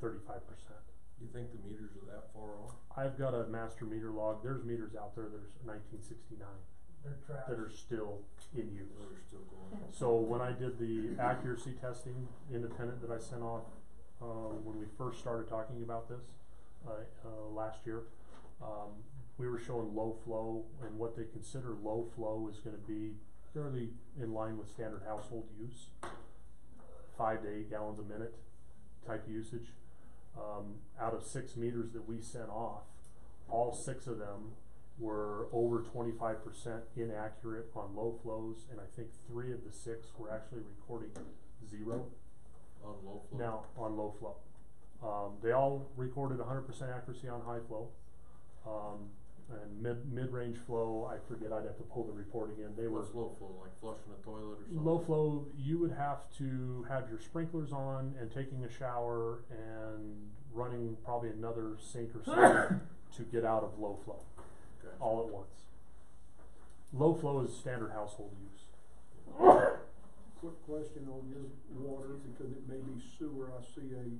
percent. You think the meters are that far off? I've got a master meter log, there's meters out there that are nineteen sixty-nine, They're trash. that are still in use. Those are still going up. So when I did the accuracy testing independent that I sent off, uh, when we first started talking about this, uh, uh, last year, um, we were showing low flow, and what they consider low flow is gonna be fairly in line with standard household use. Five to eight gallons a minute type usage. Um, out of six meters that we sent off, all six of them were over twenty-five percent inaccurate on low flows, and I think three of the six were actually recording zero On low flow? now on low flow. Um, they all recorded hundred percent accuracy on high flow. Um, and mid, mid-range flow, I forget, I'd have to pull the reporting in, they were. What's low flow, like flushing a toilet or something? Low flow, you would have to have your sprinklers on and taking a shower and running probably another sink or something to get out of low flow Gotcha. all at once. Low flow is standard household use. Quick question on this water, because it may be sewer, I see a,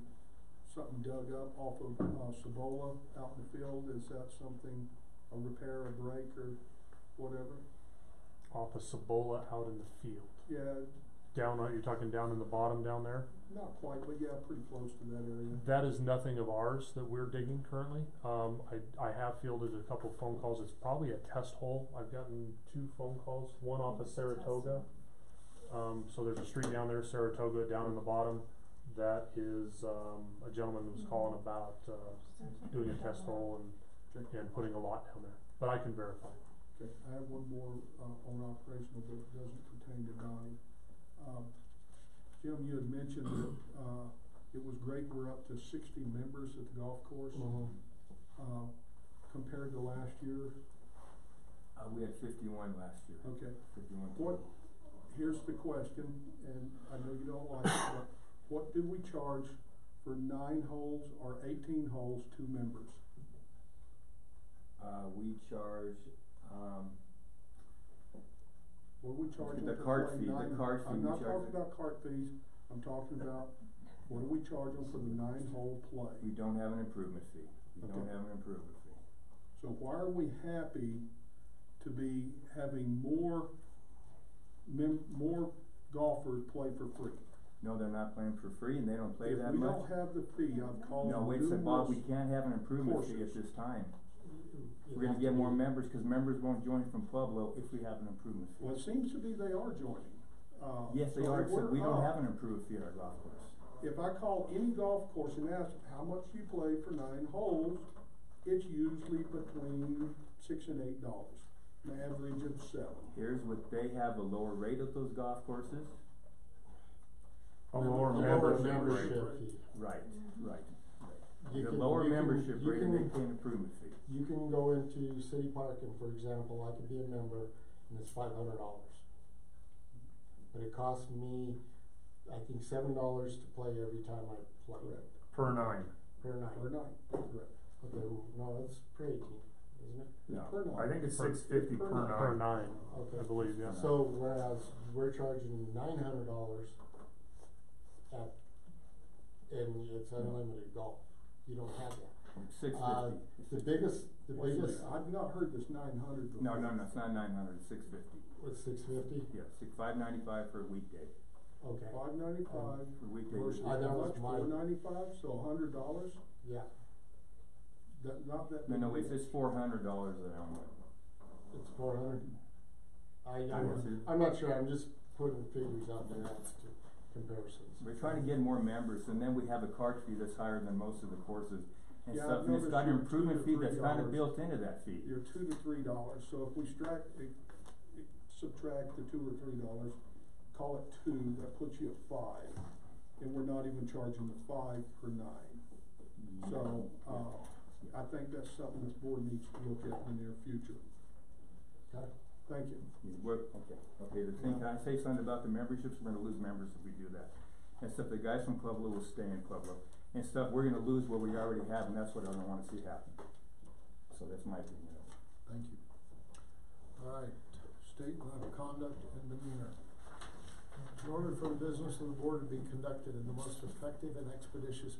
something dug up off of, uh, Cibola out in the field, is that something, a repair, a break, or whatever? Off of Cibola out in the field. Yeah, Down, uh, you're talking down in the bottom down there? not quite, but yeah, pretty close to that area. That is nothing of ours that we're digging currently. Um, I, I have fielded a couple phone calls. It's probably a test hole. I've gotten two phone calls, one off of Saratoga. Um, so there's a street down there, Saratoga, down in the bottom. That is, um, a gentleman who was calling about, uh, doing a test hole and, and putting a lot down there. But I can verify. Okay, I have one more, uh, on operational, but it doesn't pertain to Donnie. Um, Jim, you had mentioned that, uh, it was great, we're up to sixty members at the golf course. Mm-hmm. Uh, compared to last year, Uh, we had fifty-one last year, okay, fifty-one. What, here's the question, and I know you don't like it, but what do we charge for nine holes or eighteen holes, two members? Uh, we charge, um, What do we charge The them for cart playing fee, the nine- cart fee I'm we not charge talking them. about cart fees, I'm talking about, what do we charge them for the nine hole we play? don't have an improvement fee, we don't Okay. have an improvement fee. So why are we happy to be having more mem- more golfers play for free? No, they're not playing for free and they don't play that If we much. don't have the fee, I've called No, wait, a second, Bob, we numerous, can't have an improvement fee at courses. this time. We're gonna get more members, cause members won't join from Pueblo if we have an improvement fee. well, it seems to be they are joining. Uh, Yes, they so are, if except we're we don't up- have an improvement fee at our golf course. If I call any golf course and ask how much you play for nine holes, it's usually between six and eight dollars, an average of seven. Here's what, they have a lower rate at those golf courses. A lower A lower membership. membership fee. Right, right. You The can- lower you can- membership you rate and can- they pay an improvement fee. You can go into city parking, for example, I could be a member and it's five hundred dollars. But it costs me, I think, seven dollars to play every time I play Per nine. per night. Per night, correct. Okay, well, no, that's per eighteen, isn't it? No. Per night. think it's six fifty per nine. Per nine, I Okay. believe, yeah. So whereas we're charging nine hundred dollars at, and it's unlimited golf, you don't have that. Six Uh, fifty. the biggest, the Wait a biggest, minute, I've not heard this nine hundred before. No, no, no, it's not nine hundred, it's six fifty. was six fifty, Yeah, six, five ninety-five for a weekday. okay, Five ninety-five For weekday. versus I how know much, it's my- four ninety-five, so a hundred dollars, yeah. that, not that. No, no, big it's, deal. it's four hundred dollars an hour. It's four hundred. I, Yes, I'm, it- I'm not sure, I'm just putting figures out there as to comparisons. We're trying to get more members, and then we have a card fee that's higher than most of the courses and Yeah, I've stuff, and it's noticed got an your improvement two fee to that's three kind of dollars. built into that fee. You're two to three dollars, so if we strike, subtract the two or three dollars, call it two, that puts you at five. And we're not even charging the five per nine. So, uh, I think that's something this board needs to look at in the near future. Okay. Thank you. Yeah, we're- okay, okay, the thing, can I say something about the memberships? We're gonna lose members if we do that. And stuff, the guys from Pueblo will stay in Pueblo, and stuff, we're gonna lose what we already have, and that's what I don't wanna see happen. So that's my opinion. Thank you. All right, statement of conduct and demeanor. In order for the business of the board to be conducted in the most effective and expeditious